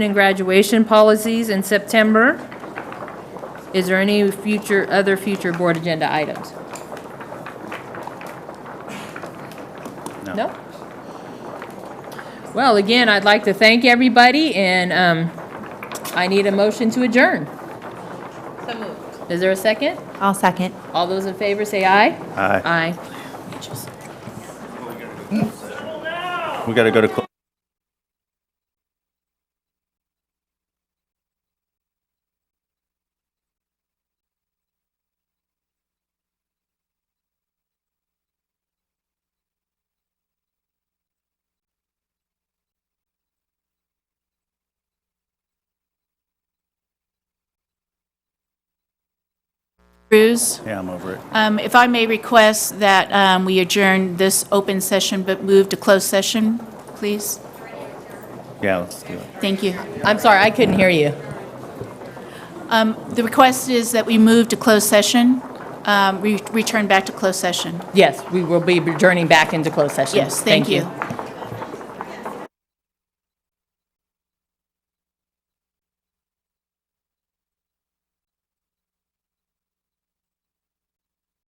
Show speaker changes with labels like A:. A: and graduation policies in September. Is there any future, other future board agenda items?
B: No.
A: No? Well, again, I'd like to thank everybody, and um, I need a motion to adjourn.
C: So moved.
A: Is there a second?
D: I'll second.
A: All those in favor say aye.
B: Aye.
A: Aye.
B: We got to go to. cl-
E: Cruz,
B: Yeah, I'm over it.
E: um, if I may request that um, we adjourn this open session but move to closed session, please?
B: Yeah, let's do it.
E: Thank you.
A: I'm sorry, I couldn't hear you.
E: Um, The request is that we move to closed session, um, re- return back to closed session.
A: Yes, we will be returning back into closed session.
E: Yes, thank you.